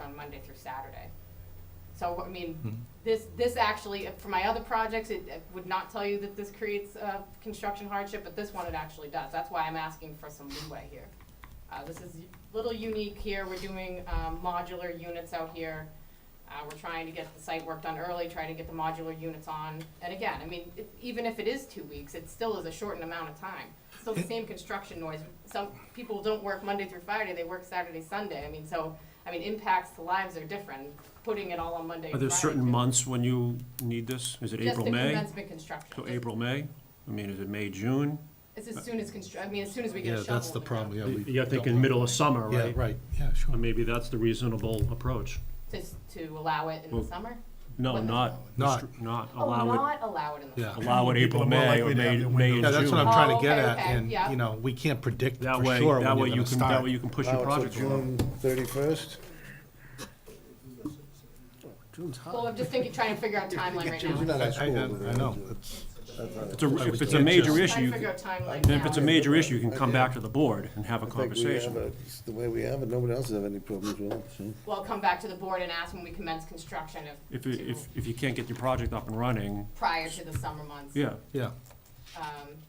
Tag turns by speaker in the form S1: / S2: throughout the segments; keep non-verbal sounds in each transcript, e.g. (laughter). S1: on Monday through Saturday. So, I mean, this, this actually, uh, for my other projects, it it would not tell you that this creates uh, construction hardship, but this one it actually does. That's why I'm asking for some leeway here. Uh, This is a little unique here. We're doing um, modular units out here. Uh, We're trying to get the site work done early, trying to get the modular units on. And again, I mean, it- even if it is two weeks, it still is a shortened amount of time. Still the same construction noise. Some people don't work Monday through Friday, they work Saturday, Sunday. I mean, so, I mean, impacts to lives are different, putting it all on Monday
S2: Are
S1: and
S2: there
S1: Friday.
S2: certain
S1: could-
S2: months when you need this? Is it
S1: Just
S2: April,
S1: the
S2: May?
S1: commencement construction.
S2: So
S1: Just-
S2: April, May? I mean, is it May, June?
S1: It's as soon as constru, I mean, as soon as we get a
S3: Yeah,
S1: shovel.
S3: that's
S1: in
S3: the problem,
S1: ground.
S3: yeah. we
S2: You're
S3: don't
S2: thinking
S3: want-
S2: middle of summer,
S3: Yeah,
S2: right?
S3: right, yeah, sure.
S2: Or maybe that's the reasonable approach.
S1: Just to allow it in the
S2: Well,
S1: summer?
S2: No,
S1: Well,
S2: not,
S3: Not-
S2: restri- not
S1: Oh,
S2: allow it,
S1: not allow it in the
S3: Yeah.
S1: summer.
S2: allow it
S4: People
S2: April,
S4: are more
S2: May, or
S4: likely to have
S2: May, May
S4: their
S2: and June.
S4: window.
S3: Yeah, that's what I'm
S1: Oh,
S3: trying to
S1: okay,
S3: get at,
S1: okay,
S3: and,
S1: yeah.
S3: you know, we can't predict
S2: That
S3: for
S2: way,
S3: sure
S2: that
S3: when
S2: way
S3: you're
S2: you
S3: gonna
S2: can, that
S3: start.
S2: way you can push your
S4: Now
S2: project
S4: it's a
S2: along.
S4: June thirty-first?
S3: June's hot.
S1: Well, I'm just thinking, trying to figure out timeline right now.
S4: You're not
S3: I,
S4: at
S3: I, I
S4: school. man.
S3: know, it's,
S2: It's a- If it's a
S3: can't
S2: major
S3: just-
S2: issue,
S1: Trying
S2: you
S1: to figure
S2: can-
S1: out timeline
S2: then if it's a
S1: now.
S2: major issue, you can come back to the board and have a
S4: I think we have
S2: conversation.
S4: it. It's The way we have it, nobody else has any problems with it, so.
S1: We'll come back to the board and ask when we commence construction if,
S2: If, you-
S1: to-
S2: if, if you can't get your project up and running,
S1: prior to the summer months.
S2: yeah.
S3: yeah,
S1: Um,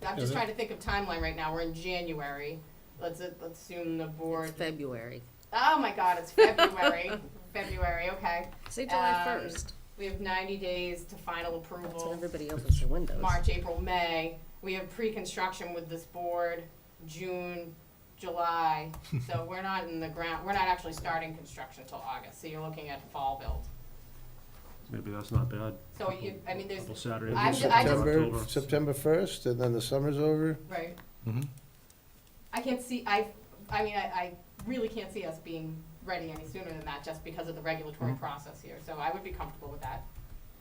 S1: I'm just trying to think of timeline right now, we're in January, let's, let's assume the board,
S5: February.
S1: oh my god, it's
S5: (laughs)
S1: February, February, okay.
S5: Say July
S1: Um,
S5: first.
S1: We have ninety days to final
S5: That's when
S1: approval,
S5: everybody opens their windows.
S1: March, April, May, we have pre-construction with this board, June,
S2: (laughs)
S1: July, so we're not in the ground, we're not actually starting construction till August, so you're looking at fall build.
S2: Maybe that's not bad.
S1: So you, I mean, there's,
S2: Couple Saturdays,
S1: I'm ju- I just-
S2: September,
S4: September,
S2: October.
S4: September first, and then the summer's over.
S1: right,
S2: Mm-hmm.
S3: mhm.
S1: I can't see, I, I mean, I, I really can't see us being ready any sooner than that, just because of the regulatory
S2: Mm-hmm.
S1: process here, so I would be comfortable with that.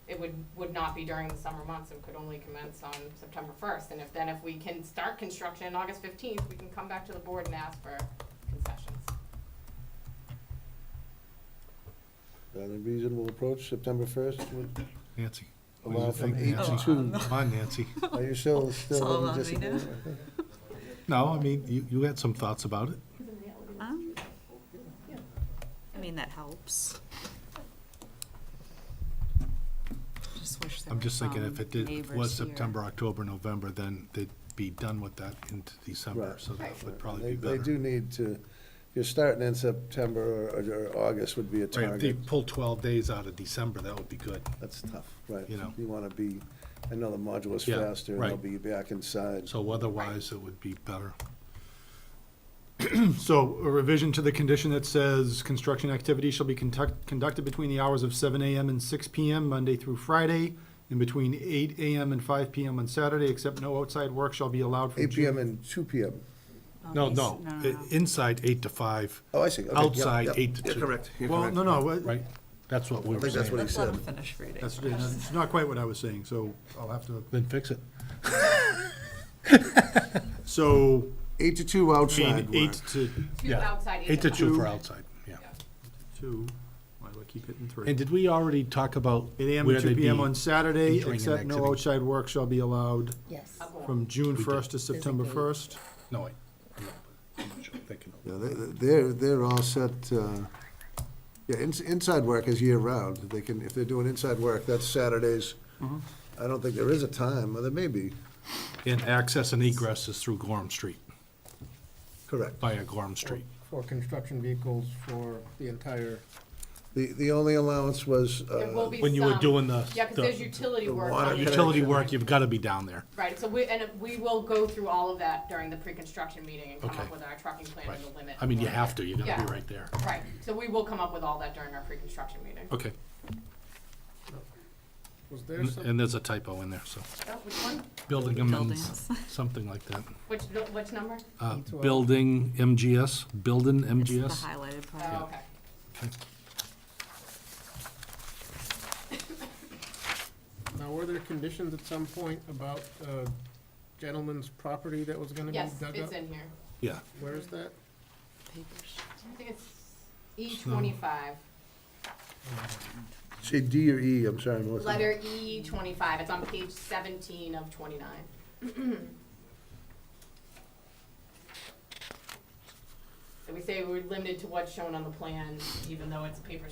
S1: It would, would not be during the summer months, and could only commence on September first, and if then if we can start construction on August fifteenth, we can come back to the board and ask for concessions.
S4: That's a reasonable approach, September first,
S3: Nancy. what do you
S4: allow from
S3: think,
S4: eight
S1: Oh,
S3: Nancy?
S4: to two.
S3: Come on,
S1: (laughs)
S3: Nancy.
S4: Are you still, still?
S6: all on
S4: in
S6: me now.
S4: disagreement?
S3: No, I mean, you, you had some thoughts about it.
S6: Um, I mean, that helps. Just wish there
S3: I'm just
S6: were
S3: thinking if
S1: Um,
S6: some
S3: it did, was
S6: neighbors here.
S3: September, October, November, then they'd be done with that into December,
S4: Right.
S3: so that would
S4: They-
S3: probably be
S4: They
S3: better.
S4: do need to, if you're starting in September or, or August would be a
S3: Right, if they
S4: target.
S3: pull twelve days out of December, that would be good.
S4: That's tough, right.
S3: You know.
S4: You wanna be, I know the modular's
S3: Yeah,
S4: faster, and they'll
S3: right.
S4: be back inside.
S3: So otherwise, it would be better. (clears throat)
S7: So a revision to the condition that says construction activity shall be conduct, conducted between the hours of seven AM and six PM, Monday through Friday, and between eight AM and five PM on Saturday, except no outside work shall be allowed from
S4: Eight PM
S7: June.
S4: and two PM.
S3: No,
S6: Okay,
S3: no, i- inside eight to five,
S4: Oh, I see. Okay, yep,
S3: outside
S4: yep.
S3: eight to two.
S8: Correct. You're
S7: Well,
S8: correct.
S7: no, no, what-
S3: Right? That's what we
S4: I
S3: were
S4: think that's
S3: saying.
S4: what he
S6: Let's let
S4: said.
S6: him finish reading.
S7: that's, that's not quite what I was saying, so I'll have to,
S3: Then fix it.
S7: so,
S4: Eight to two
S7: I mean,
S4: outside work.
S7: eight to
S1: Two
S3: Yeah,
S1: outside,
S3: Eight to two
S1: inside.
S3: for outside, yeah.
S7: two, why do I keep hitting three?
S3: And did we already talk about
S7: Eight AM
S3: where
S7: and
S3: they'd
S7: two PM
S3: be
S7: on Saturday,
S3: entering and
S7: except no
S3: exiting?
S7: outside work shall be allowed
S5: Yes.
S1: I'll go on.
S7: from June
S3: did.
S7: first to September
S5: Designate.
S7: first.
S3: No, wait. I'm not- I'm not sure. I'm thinking.
S4: Yeah, they- They're, they're all set, uh, yeah, ins- inside work is year-round. They can, if they're doing inside work, that's Saturdays. I don't think there is a time, or there may be,
S3: And access and egress is through Gorham Street,
S4: correct.
S3: via Gorham Street.
S9: for construction vehicles for the entire,
S4: The, the only allowance was,
S1: There will
S4: uh,
S1: be
S3: When you were
S1: some-
S3: doing the-
S1: Yeah, cause
S3: the-
S1: there's utility
S4: the
S1: work.
S4: water
S1: on it.
S3: Utility work, you've gotta be down there.
S1: Right, so we, and we will go through all of that during the pre-construction meeting and come
S3: Okay.
S1: up with our trucking plan
S3: Right.
S1: and the limit.
S3: I mean, you have to, you gotta
S1: Yeah.
S3: be right there.
S1: Right, so we will come up with all that during our pre-construction meeting.
S3: Okay,
S9: was there
S3: and
S9: some,
S3: and there's a typo in there, so.
S1: Oh, which one?
S3: Building amends,
S6: Buildings.
S3: something like that.
S1: Which, nu- which number?
S3: Uh,
S9: E12.
S3: Building MGS, building
S6: It's the
S3: MGS.
S6: highlighted part.
S1: Oh, okay.
S9: now were there conditions at some point about uh, gentleman's property that was gonna be
S1: Yes,
S9: dug up?
S1: it's in here.
S3: Yeah,
S9: Where is that?
S6: Papers.
S1: I think it's E
S3: Hmm.
S1: twenty-five,
S4: say D or E, I'm sorry, Melissa.
S1: letter E twenty-five, it's on page seventeen of twenty-nine. (clears throat) So we say we're limited to what's shown on the plan, even though it's a paper